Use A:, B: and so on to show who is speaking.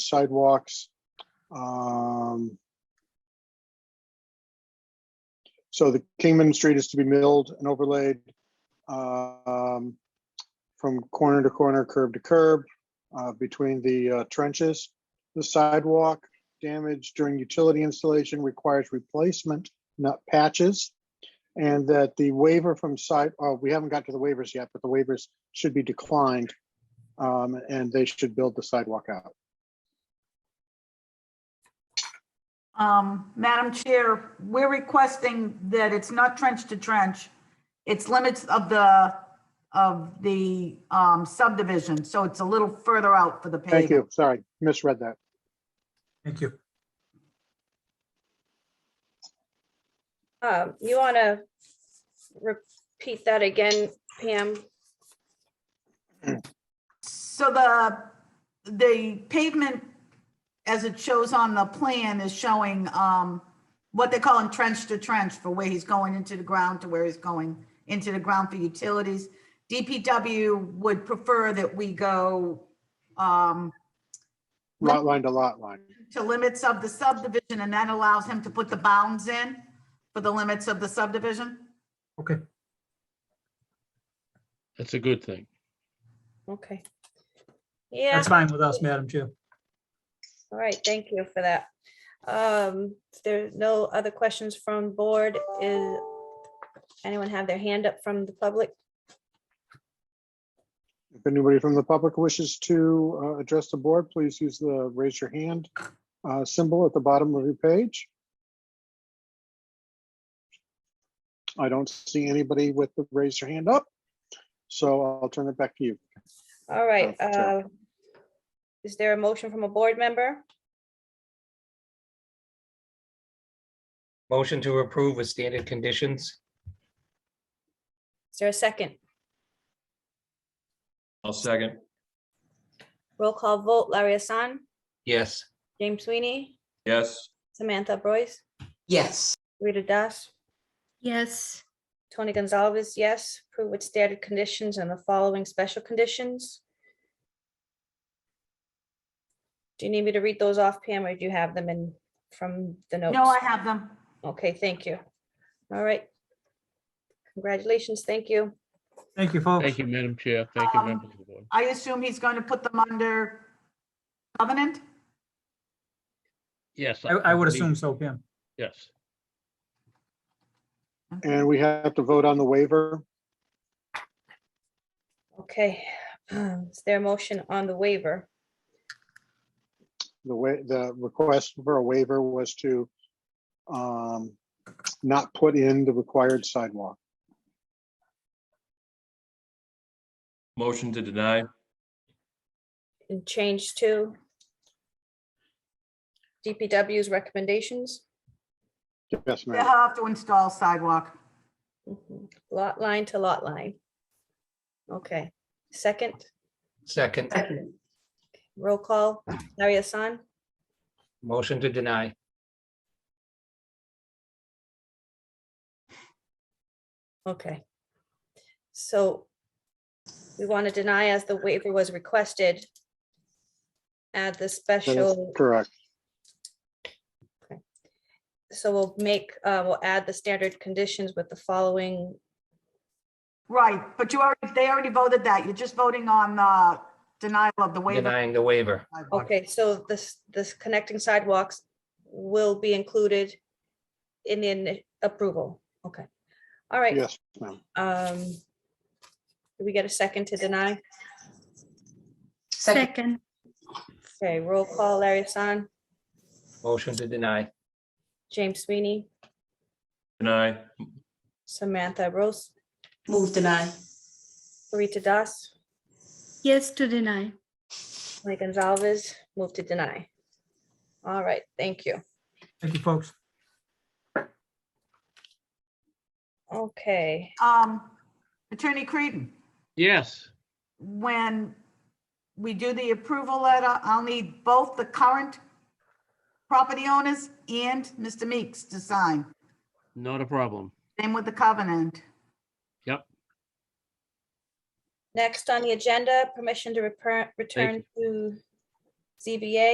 A: sidewalks. Um, So the Kingman Street is to be milled and overlaid um, from corner to corner, curb to curb, uh, between the uh, trenches. The sidewalk damage during utility installation requires replacement, not patches. And that the waiver from side, oh, we haven't got to the waivers yet, but the waivers should be declined. um, And they should build the sidewalk out.
B: Um, Madam Chair, we're requesting that it's not trench to trench. It's limits of the, of the um, subdivision, so it's a little further out for the paving.
A: Thank you. Sorry, misread that.
C: Thank you.
D: Um, you want to repeat that again, Pam?
B: So the, the pavement, as it shows on the plan, is showing um, what they're calling trench to trench for where he's going into the ground to where he's going into the ground for utilities. DPW would prefer that we go um,
A: Lot line to lot line.
B: to limits of the subdivision, and that allows him to put the bounds in for the limits of the subdivision?
C: Okay,
E: That's a good thing.
D: Okay. Yeah,
C: that's fine with us, Madam Chair.
D: all right, thank you for that. Um, if there's no other questions from board, is anyone have their hand up from the public?
A: If anybody from the public wishes to uh, address the board, please use the raise your hand uh, symbol at the bottom of your page. I don't see anybody with the raise your hand up, so I'll turn it back to you.
D: All right,
A: Uh, sure.
D: uh, is there a motion from a board member?
F: Motion to approve with standard conditions.
D: Is there a second?
G: I'll second.
D: Roll call vote, Larry Hassan,
F: Yes,
D: James Sweeney,
G: Yes,
D: Samantha Boyce,
H: Yes,
D: Rita Das,
I: Yes,
D: Tony Gonzalez, yes. Approve with standard conditions and the following special conditions. Do you need me to read those off, Pam, or do you have them in from the notes?
B: No, I have them.
D: Okay, thank you. All right. Congratulations, thank you.
C: Thank you, folks.
E: Thank you, Madam Chair. Thank you,
B: Um,
E: members of the board.
B: I assume he's going to put them under covenant?
E: Yes.
C: I, I would
E: believe-
C: assume so, Pam.
E: Yes.
A: And we have to vote on the waiver.
D: Okay, is there a motion on the waiver?
A: The way, the request for a waiver was to um, not put in the required sidewalk.
G: motion to deny.
D: And change to DPW's recommendations,
A: Yes,
B: They
A: ma'am.
B: have to install sidewalk.
D: Mhm. lot line to lot line. Okay, second?
F: second,
H: second,
D: Roll call, Larry Hassan,
F: motion to deny.
D: okay. So we want to deny as the waiver was requested. Add the
A: That is
D: special,
A: Correct.
D: so we'll make, uh, we'll add the standard conditions with the following,
B: Right, but you already, they already voted that. You're just voting on uh, denial of the waiver.
F: Denying the waiver.
B: sidewalk.
D: okay, so this, this connecting sidewalks will be included in the ini- approval, okay. All right,
A: Yes, ma'am.
D: um, do we get a second to deny?
H: second,
I: second,
D: Okay, roll call, Larry Hassan,
F: Motion to deny.
D: James Sweeney,
G: Deny,
D: Samantha Rose,
H: move deny,
D: Rita Das,
I: yes to deny.
D: Tony Gonzalez, move to deny. All right, thank you.
C: Thank you, folks.
D: Okay,
B: Um, Attorney Creedon,
E: Yes.
B: when we do the approval letter, I'll need both the current property owners and Mr. Meeks to sign.
E: Not a problem.
B: Same with the covenant.
D: next on the agenda, permission to repair, return to ZBA